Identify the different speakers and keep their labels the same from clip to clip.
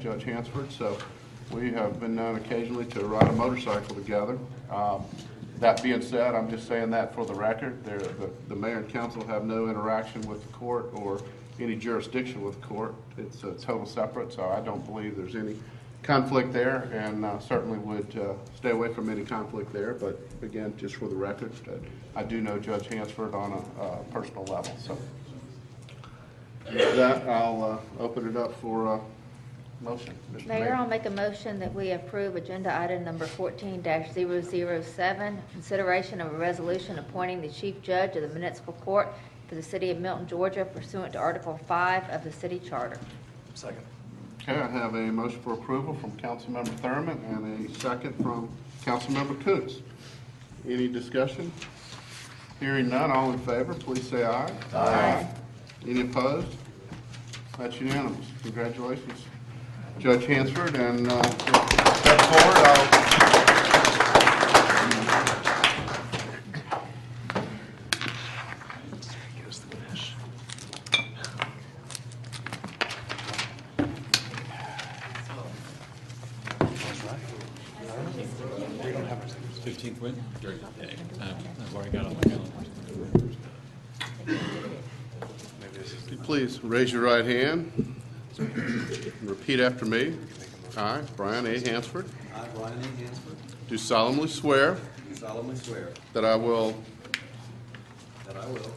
Speaker 1: Judge Hansford, so we have been known occasionally to ride a motorcycle together. Um, That being said, I'm just saying that for the record, there, the- the mayor and council have no interaction with the court or any jurisdiction with the court. It's uh, total separate, so I don't believe there's any conflict there, and uh, certainly would uh, stay away from any conflict there, but again, just for the record, uh, I do know Judge Hansford on a uh, personal level, so. With that, I'll uh, open it up for uh motion. Mr.
Speaker 2: Mayor, I'll make a motion that we approve agenda item number fourteen 7 consideration of a resolution appointing the chief judge of the municipal court for the city of Milton, Georgia pursuant to Article five of the city charter.
Speaker 3: Second.
Speaker 1: Okay, I have a motion for approval from Councilmember Thurman and a second from Councilmember Coons. Any discussion? Hearing none, all in favor, please say aye.
Speaker 2: Aye.
Speaker 1: Any opposed? That's unanimous. Congratulations, Judge Hansford, and uh, step forward. I'll-
Speaker 3: Here's the finish.
Speaker 4: Fifteenth win? During the day. Um, I've already got it on my calendar.
Speaker 1: if you Please raise your right hand. Repeat after me. I, Brian A. Hansford,
Speaker 5: I, Brian A. Hansford,
Speaker 1: do solemnly swear
Speaker 5: do solemnly swear
Speaker 1: that I will
Speaker 5: that I will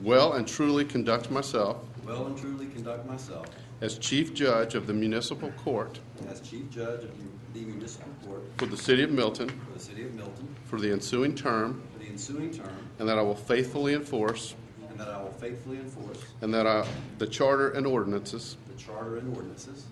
Speaker 1: well and truly conduct myself
Speaker 5: well and truly conduct myself
Speaker 1: As Chief Judge of the Municipal Court
Speaker 5: as Chief Judge of the Municipal Court
Speaker 1: for the City of Milton
Speaker 5: for the City of Milton
Speaker 1: for the ensuing term,
Speaker 5: for the ensuing term,
Speaker 1: and that I will faithfully enforce,
Speaker 5: and that I will faithfully enforce
Speaker 1: and that I, the Charter and ordinances
Speaker 5: the Charter and ordinances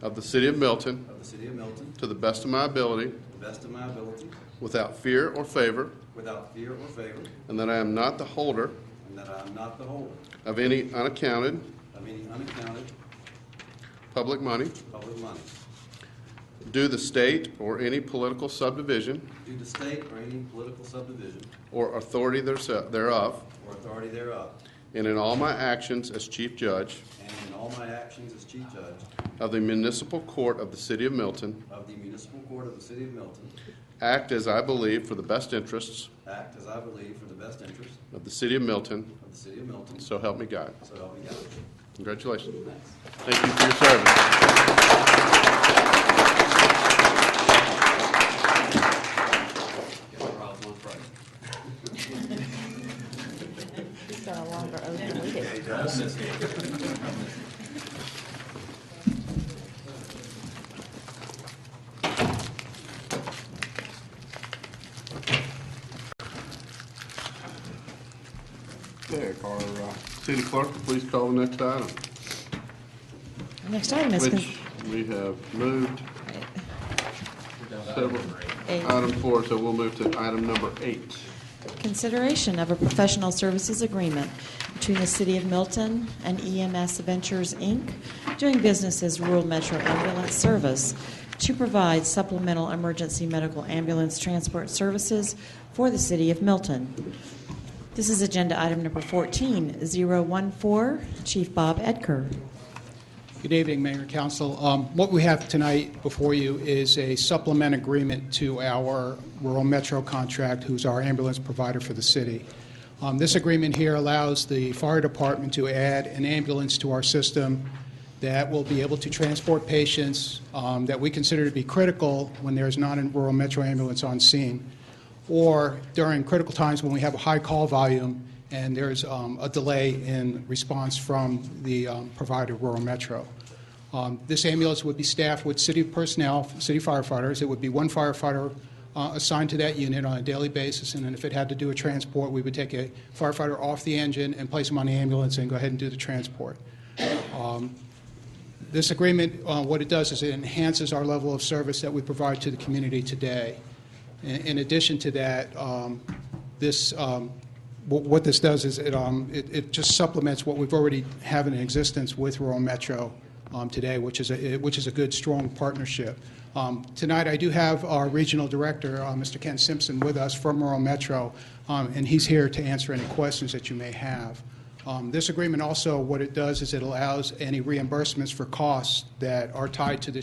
Speaker 1: of the City of Milton
Speaker 5: of the City of Milton
Speaker 1: to the best of my ability,
Speaker 5: to the best of my ability,
Speaker 1: without fear or favor,
Speaker 5: without fear or favor,
Speaker 1: and that I am not the holder
Speaker 5: and that I am not the holder
Speaker 1: of any unaccounted
Speaker 5: of any unaccounted
Speaker 1: public money
Speaker 5: public money
Speaker 1: due the state or any political subdivision
Speaker 5: due to state or any political subdivision
Speaker 1: or authority thereof, thereof,
Speaker 5: or authority thereof,
Speaker 1: and in all my actions as Chief Judge
Speaker 5: and in all my actions as Chief Judge
Speaker 1: of the Municipal Court of the City of Milton,
Speaker 5: of the Municipal Court of the City of Milton,
Speaker 1: act as I believe for the best interests
Speaker 5: act as I believe for the best interest
Speaker 1: of the City of Milton,
Speaker 5: of the City of Milton,
Speaker 1: so help me God.
Speaker 5: so help me God.
Speaker 1: Congratulations. Thank you for your service.
Speaker 2: He's got a longer oath than we do.
Speaker 1: Okay, our uh, city clerk, please call the next item,
Speaker 6: Next item is,
Speaker 1: which we have moved several.
Speaker 6: Eight.
Speaker 1: Item four, so we'll move to item number eight.
Speaker 6: consideration of a professional services agreement between the City of Milton and EMS Ventures, Inc., doing business as Rural Metro Ambulance Service, to provide supplemental emergency medical ambulance transport services for the City of Milton. This is Agenda Item Number 14, 014, Chief Bob Edgar.
Speaker 7: Good evening, Mayor and Council. Um, What we have tonight before you is a supplement agreement to our rural metro contract, who's our ambulance provider for the city. Um, This agreement here allows the fire department to add an ambulance to our system that will be able to transport patients um, that we consider to be critical when there is not a rural metro ambulance on scene, or during critical times when we have a high call volume and there's um, a delay in response from the um, provider, Rural Metro. Um, This ambulance would be staffed with city personnel, city firefighters. It would be one firefighter uh, assigned to that unit on a daily basis, and then if it had to do a transport, we would take a firefighter off the engine and place him on the ambulance and go ahead and do the transport. Um, This agreement, uh, what it does is it enhances our level of service that we provide to the community today. In in addition to that, um, this, um, wh- what this does is it, um, it it just supplements what we've already have in existence with rural metro um, today, which is, a which is a good, strong partnership. Um, Tonight, I do have our regional director, uh, Mr. Ken Simpson, with us from rural metro, um, and he's here to answer any questions that you may have. Um, Um, This agreement also, what it does is it allows any reimbursements for costs that are tied to the